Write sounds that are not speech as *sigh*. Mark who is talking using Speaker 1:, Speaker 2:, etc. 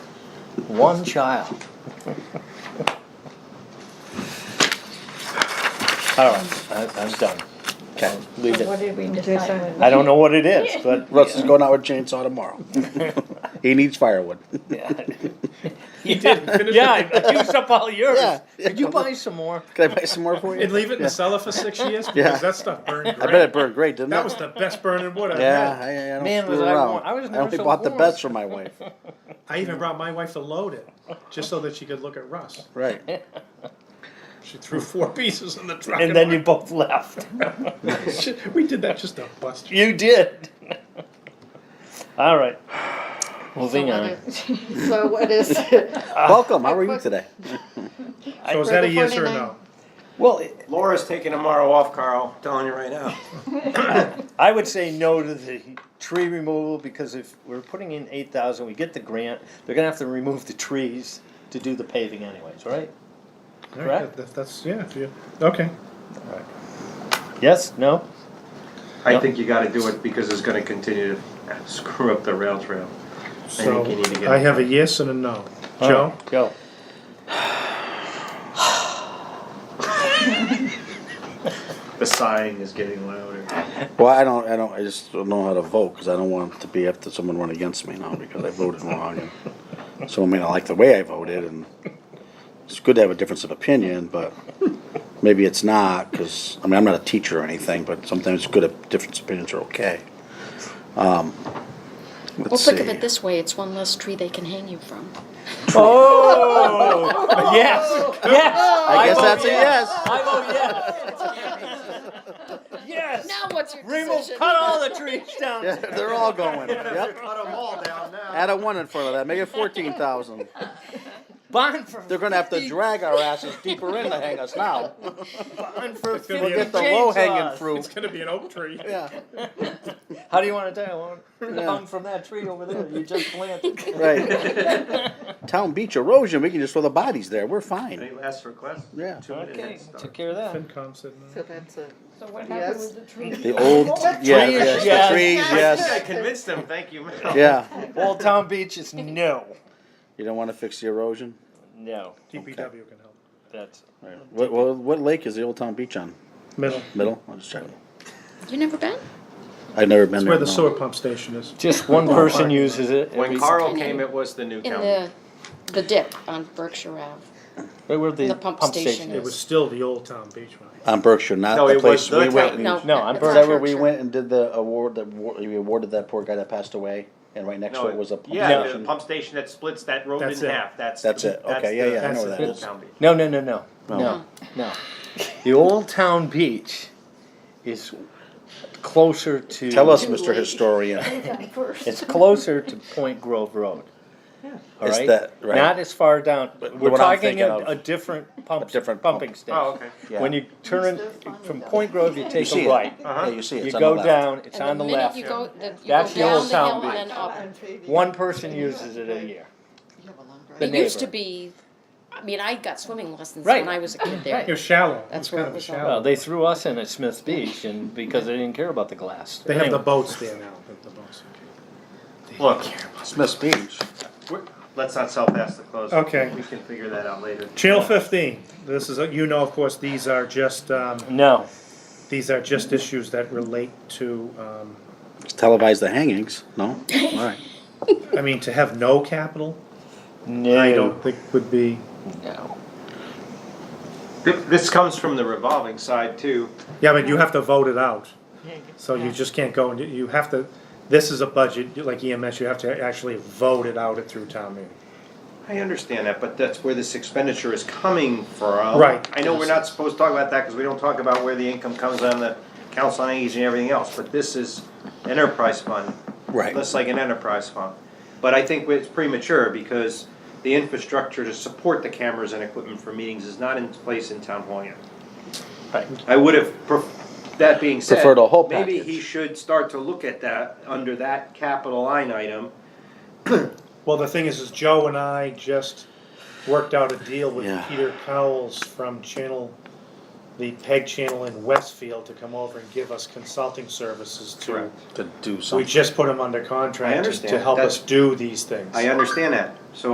Speaker 1: One child. All right, I, I'm done.
Speaker 2: Okay.
Speaker 1: Leave
Speaker 3: What
Speaker 1: it.
Speaker 3: did we decide?
Speaker 1: I don't know what it is, but.
Speaker 2: Russ is going out with chainsaw tomorrow. *laughs* he needs firewood.
Speaker 1: You did, yeah, I- I used up all
Speaker 2: Yeah.
Speaker 1: yours. Could *laughs* you buy some more?
Speaker 2: Can I buy some more for
Speaker 4: And
Speaker 2: you?
Speaker 4: leave it in the cellar for six years
Speaker 2: *laughs*
Speaker 4: because
Speaker 2: Yeah.
Speaker 4: that stuff burned
Speaker 2: I
Speaker 4: great.
Speaker 2: bet it burned great, didn't
Speaker 4: that
Speaker 2: it?
Speaker 4: was the best burning wood I've
Speaker 2: yeah,
Speaker 4: had.
Speaker 2: I, I don't
Speaker 1: Man,
Speaker 2: screw
Speaker 1: was I
Speaker 2: around.
Speaker 1: warm. I was never
Speaker 2: only
Speaker 1: so
Speaker 2: bought the
Speaker 1: warm.
Speaker 2: best for
Speaker 1: *laughs*
Speaker 2: my wife.
Speaker 4: I even brought my wife to load it just so that she could look at Russ.
Speaker 2: Right.
Speaker 4: She threw four *laughs* pieces in the truck.
Speaker 1: And then you both left.
Speaker 4: we did that just to bust you.
Speaker 1: You did. All right. Moving on.
Speaker 3: *laughs* So what is,
Speaker 4: Ah.
Speaker 2: Welcome. How are you today?
Speaker 4: So is that a yes or a no?
Speaker 1: Well,
Speaker 5: Laura's taking tomorrow off, Carl, telling you right now.
Speaker 1: I would say no to the tree removal because if we're putting in eight thousand, we get the grant, they're gonna have to remove the trees to do the paving anyways, right? Correct.
Speaker 4: That- that's yeah. if you- Okay.
Speaker 1: Yes, no?
Speaker 5: I
Speaker 1: Yeah.
Speaker 5: think you gotta do it because it's gonna continue to screw up the rail trail.
Speaker 4: So
Speaker 5: think you need to get-
Speaker 4: I have a yes and a no. Joe,
Speaker 1: Joe.
Speaker 5: The sighing is getting louder.
Speaker 2: Well, I don't. I don't. I just don't know how to vote because I don't want to be after someone run against me now because I voted wrong. And someone may not like the way I voted, and it's good to have a difference of opinion, but maybe it's not because I mean I'm not a teacher or anything, but sometimes it's good if different opinions are okay. Um,
Speaker 6: Well,
Speaker 2: let's
Speaker 6: think
Speaker 2: see.
Speaker 6: of it this way, it's one less tree they can hang you from.
Speaker 1: Oh, yes, yes.
Speaker 2: I guess
Speaker 1: vote
Speaker 2: that's a yes.
Speaker 1: I vote yes. Yes.
Speaker 6: Now what's your
Speaker 1: Remove,
Speaker 6: decision?
Speaker 1: cut all the trees down.
Speaker 2: Yeah, they're all going. Yep. Add a one in front of that. Make it fourteen thousand.
Speaker 1: Bond for.
Speaker 2: They're gonna have
Speaker 6: *laughs*
Speaker 2: to drag our asses deeper in to hang us now.
Speaker 1: Bond for
Speaker 4: It's
Speaker 1: fifty
Speaker 4: gonna be
Speaker 2: We'll get the
Speaker 1: chainsaws.
Speaker 2: low hanging fruit.
Speaker 4: it's gonna be an oak tree.
Speaker 2: Yeah.
Speaker 1: How do you want to tell? Well,
Speaker 2: Yeah.
Speaker 1: Hung from that tree over there you just planted.
Speaker 2: *laughs* Right. Town beach erosion, we can just throw the bodies there, we're fine.
Speaker 5: Any last request?
Speaker 2: Yeah.
Speaker 5: Two
Speaker 1: Okay,
Speaker 5: minutes.
Speaker 1: took care of that.
Speaker 4: FinCom said no.
Speaker 3: so that's a,
Speaker 7: So what happened
Speaker 3: yes,
Speaker 7: with the tree?
Speaker 2: The old, yeah,
Speaker 1: Trees,
Speaker 2: yes,
Speaker 1: yes.
Speaker 2: the trees,
Speaker 5: I
Speaker 2: yes,
Speaker 5: convinced him, thank you.
Speaker 2: yeah.
Speaker 1: Old Town Beach is no,
Speaker 2: You don't wanna fix the erosion?
Speaker 1: no.
Speaker 4: DPW can help.
Speaker 1: That's
Speaker 2: What, what, what lake is the old town beach on?
Speaker 4: Middle.
Speaker 2: Middle? I'm just checking.
Speaker 6: You never been?
Speaker 2: I've never been
Speaker 4: It's
Speaker 2: there.
Speaker 4: where the
Speaker 2: no.
Speaker 4: sewer pump station is.
Speaker 1: just one person uses it.
Speaker 5: When
Speaker 1: every-
Speaker 5: Carl came, it was the new
Speaker 6: In
Speaker 5: county.
Speaker 6: the, the dip on Berkshire Ave.
Speaker 1: right where the,
Speaker 6: the pump station
Speaker 4: It
Speaker 6: is.
Speaker 4: was still the old town beach one.
Speaker 2: On Berkshire, not
Speaker 5: No,
Speaker 2: the
Speaker 5: it was
Speaker 2: place
Speaker 5: the
Speaker 2: we went.
Speaker 5: town.
Speaker 2: and-
Speaker 6: No.
Speaker 2: Is
Speaker 1: No, I'm
Speaker 6: it's not
Speaker 2: that where we
Speaker 6: Berkshire.
Speaker 2: went and did the award, that, wa- we awarded that poor guy that passed away? And right next to it was a pump
Speaker 5: Yeah, the
Speaker 2: station?
Speaker 5: pump station that splits that road in
Speaker 4: That's it.
Speaker 5: half, that's.
Speaker 2: That's
Speaker 5: the-
Speaker 2: it. Okay, yeah,
Speaker 5: the-
Speaker 2: yeah, I
Speaker 5: that's
Speaker 2: know
Speaker 5: the
Speaker 2: where that
Speaker 5: old
Speaker 2: is.
Speaker 5: town beach.
Speaker 1: No, no, no, no,
Speaker 2: No.
Speaker 1: no, no. The Old Town Beach is closer to.
Speaker 2: Tell us, Mr. Historian.
Speaker 1: It's closer to Point Grove Road. All
Speaker 2: It's
Speaker 1: right?
Speaker 2: that- right.
Speaker 1: Not as far down.
Speaker 2: But
Speaker 1: We're
Speaker 2: what I'm
Speaker 1: talking
Speaker 2: thinking
Speaker 1: a,
Speaker 2: of-
Speaker 1: a different pump,
Speaker 2: different pump.
Speaker 1: pumping station.
Speaker 5: Oh, okay.
Speaker 1: When
Speaker 2: Yeah.
Speaker 1: you turn in, from Point Grove, you
Speaker 2: You
Speaker 1: take
Speaker 2: see
Speaker 1: a
Speaker 2: it.
Speaker 1: right.
Speaker 5: Uh-huh.
Speaker 2: Yeah, you see it.
Speaker 1: You
Speaker 2: It's on the
Speaker 1: go
Speaker 2: left.
Speaker 1: down, it's
Speaker 6: And
Speaker 1: on the
Speaker 6: minute
Speaker 1: left.
Speaker 6: You go, the, you
Speaker 1: That's
Speaker 6: go
Speaker 1: the old
Speaker 6: down
Speaker 1: town
Speaker 6: the hill and then
Speaker 1: beach.
Speaker 6: up.
Speaker 1: One person uses it a year.
Speaker 3: You have a long drive.
Speaker 1: The
Speaker 6: It used to
Speaker 1: neighbor.
Speaker 6: be, I mean, I got swimming lessons
Speaker 1: Right.
Speaker 6: when I was a kid
Speaker 4: It
Speaker 6: there.
Speaker 4: was shallow.
Speaker 6: That's
Speaker 4: it was
Speaker 6: where
Speaker 4: kind
Speaker 6: it
Speaker 4: of a
Speaker 6: was all-
Speaker 4: shallow.
Speaker 1: Well, they threw us in at Smith Beach and because they didn't care about the glass.
Speaker 4: They have the
Speaker 1: Anyway.
Speaker 4: boats there now. The, the boats.
Speaker 5: Look,
Speaker 2: Smith's Beach.
Speaker 5: we're- let's not sell past the close.
Speaker 4: Okay.
Speaker 5: We can figure that out later.
Speaker 4: Channel 15. This is, you know, of course, these are just um,
Speaker 1: No.
Speaker 4: these are just issues that relate to. Um,
Speaker 2: Televise the hangings, no? All right.
Speaker 4: I mean, to have no capital,
Speaker 1: No.
Speaker 4: I don't think would be.
Speaker 1: No.
Speaker 5: Th- This comes from the revolving side too.
Speaker 4: Yeah, but you have to vote it out. So you just can't go and you- you have to. This is a budget like EMS. You have to actually vote it out at through town meeting.
Speaker 5: I understand that, but that's where this expenditure is coming from.
Speaker 4: Right.
Speaker 5: I know we're not supposed to talk about that because we don't talk about where the income comes on the council on aging and everything else, but this is enterprise fund.
Speaker 2: Right.
Speaker 5: That's like an enterprise fund. But I think it's premature because the infrastructure to support the cameras and equipment for meetings is not in place in town hall yet.
Speaker 1: Right.
Speaker 5: I would have, pref- that being said.
Speaker 2: Preferred a whole
Speaker 5: Maybe
Speaker 2: package.
Speaker 5: he should start to look at that under that capital line item.
Speaker 4: Well, the thing is, is Joe and I just worked out a deal with
Speaker 2: Yeah.
Speaker 4: Peter Cowles from Channel, the PEG channel in Westfield to come over and give us consulting services to.
Speaker 5: Correct.
Speaker 2: To do
Speaker 4: We just put him under contract to- to
Speaker 5: understand.
Speaker 4: help us
Speaker 5: That's-
Speaker 4: do these things.
Speaker 5: I understand that, so